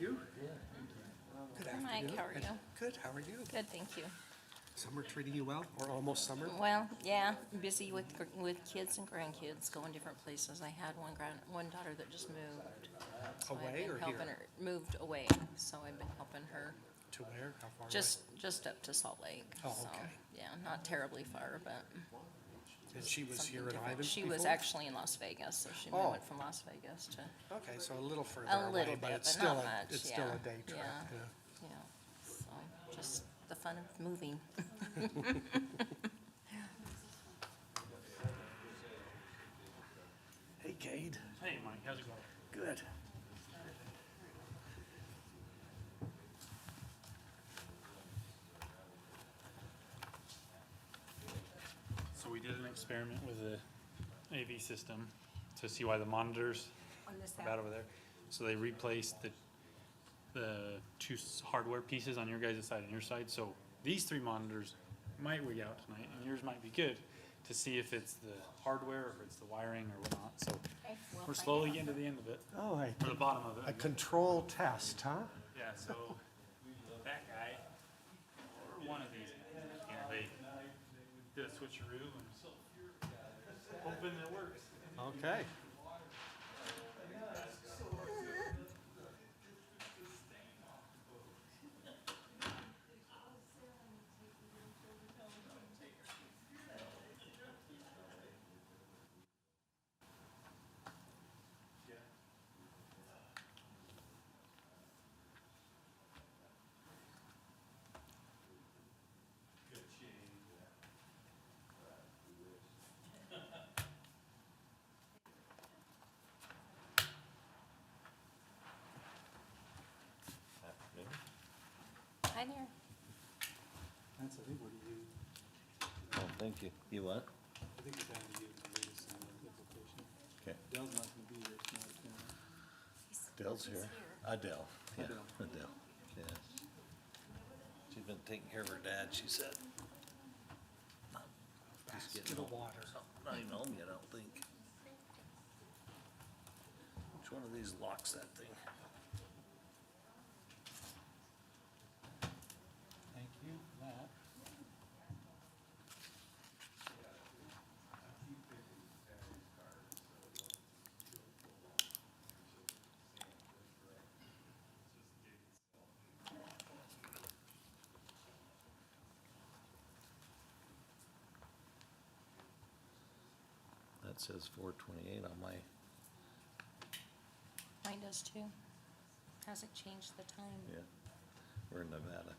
you? Good Mike, afternoon. how are you? Good, how are you? Good, thank you. Summer treating you well, or almost summer? Well, yeah, busy with, gr- with kids and grandkids, going different places. I had one grand, one daughter that just moved. so I've Away been or here? helping her- Moved away, so I've been helping her, To where? How far away? just, just up to Salt Lake. Oh, so, okay. Yeah, not terribly far, but And she was something here at Ivan different. before? She was actually in Las Vegas, so she Oh. went from Las Vegas to, Okay, so a little further a away, little but bit, it's but still, not a much, it's still yeah, a day trip. yeah. yeah. yeah, so, just the fun of moving. Hey, Cade. Hey, Mike, how's it going? Good. So we did an experiment with the AV system to see why the monitors are bad over there. So they replaced the, the two s- hardware pieces on your guys' side and your side, so these three monitors might wig out tonight, and yours might be good, to see if it's the hardware, or if it's the wiring or whatnot, so we're slowly getting to the end of it, Oh, I, or the bottom of it. I a guess. control test, huh? Yeah, so that guy, or one of these, guys, you know, they did a switcheroo and hoping it works. Okay. Hi there. That's, I think, what you, Oh, thank you. You what? I think it's down to you to read us application. Okay. Dell's not gonna be here tonight. Dell's here. Adele. Yeah, Adele. Adele, yes. She's been taking care of her dad, she said. Just To getting the home. water. Not even home yet, I don't think. Which one of these locks that thing? Thank you for that. That says four twenty-eight on my, Mine does too. Hasn't changed the time. yeah, we're in Nevada.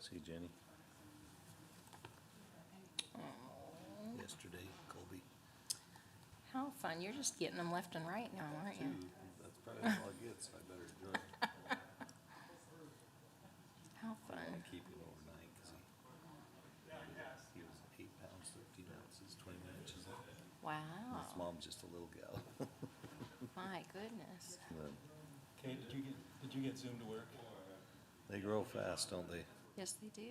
See Jenny? Yesterday, Colby. How fun. You're just getting them left and right now, aren't you? That's probably all it gets, I better enjoy it. How I fun. wanna keep him overnight, cause he, he was eight pounds, thirteen ounces, twenty-one inches. His Wow. mom's just a little gal. My goodness. Kate, did you get, did you get Zoom to work? They grow fast, don't they? Yes, they do.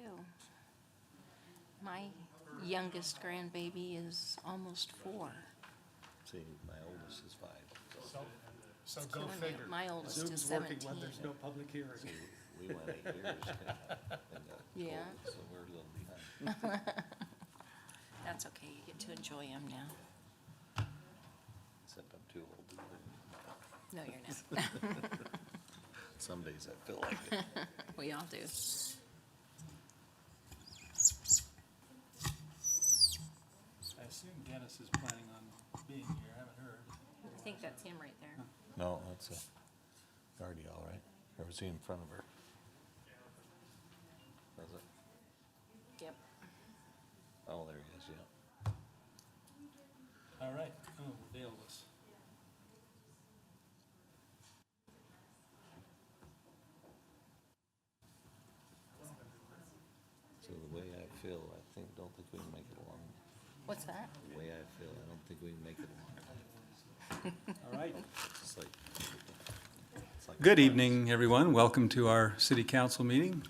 My youngest grandbaby is almost four. See, my oldest is five. so So It's go killing me. figure. My oldest is Zoom's working when 17. there's no public hearing. We went eight years. and got Yeah. cold, So we're a little behind. That's okay. You get to enjoy them now. Except I'm too old. to live. No, you're not. Some days I feel like it. We all do. I assume Dennis is planning on being here, I haven't heard. I think that's him right there. No, that's a guardy, all right. Or was he in front of her? Was it? Yep. Oh, there he is, yeah. All right, oh, Dale was. So the way I feel, I think, don't think we can make it along. What's that? The way I feel, I don't think we can make it along. All right. It's like. it's like- Good evening, everyone. Welcome to our city council meeting.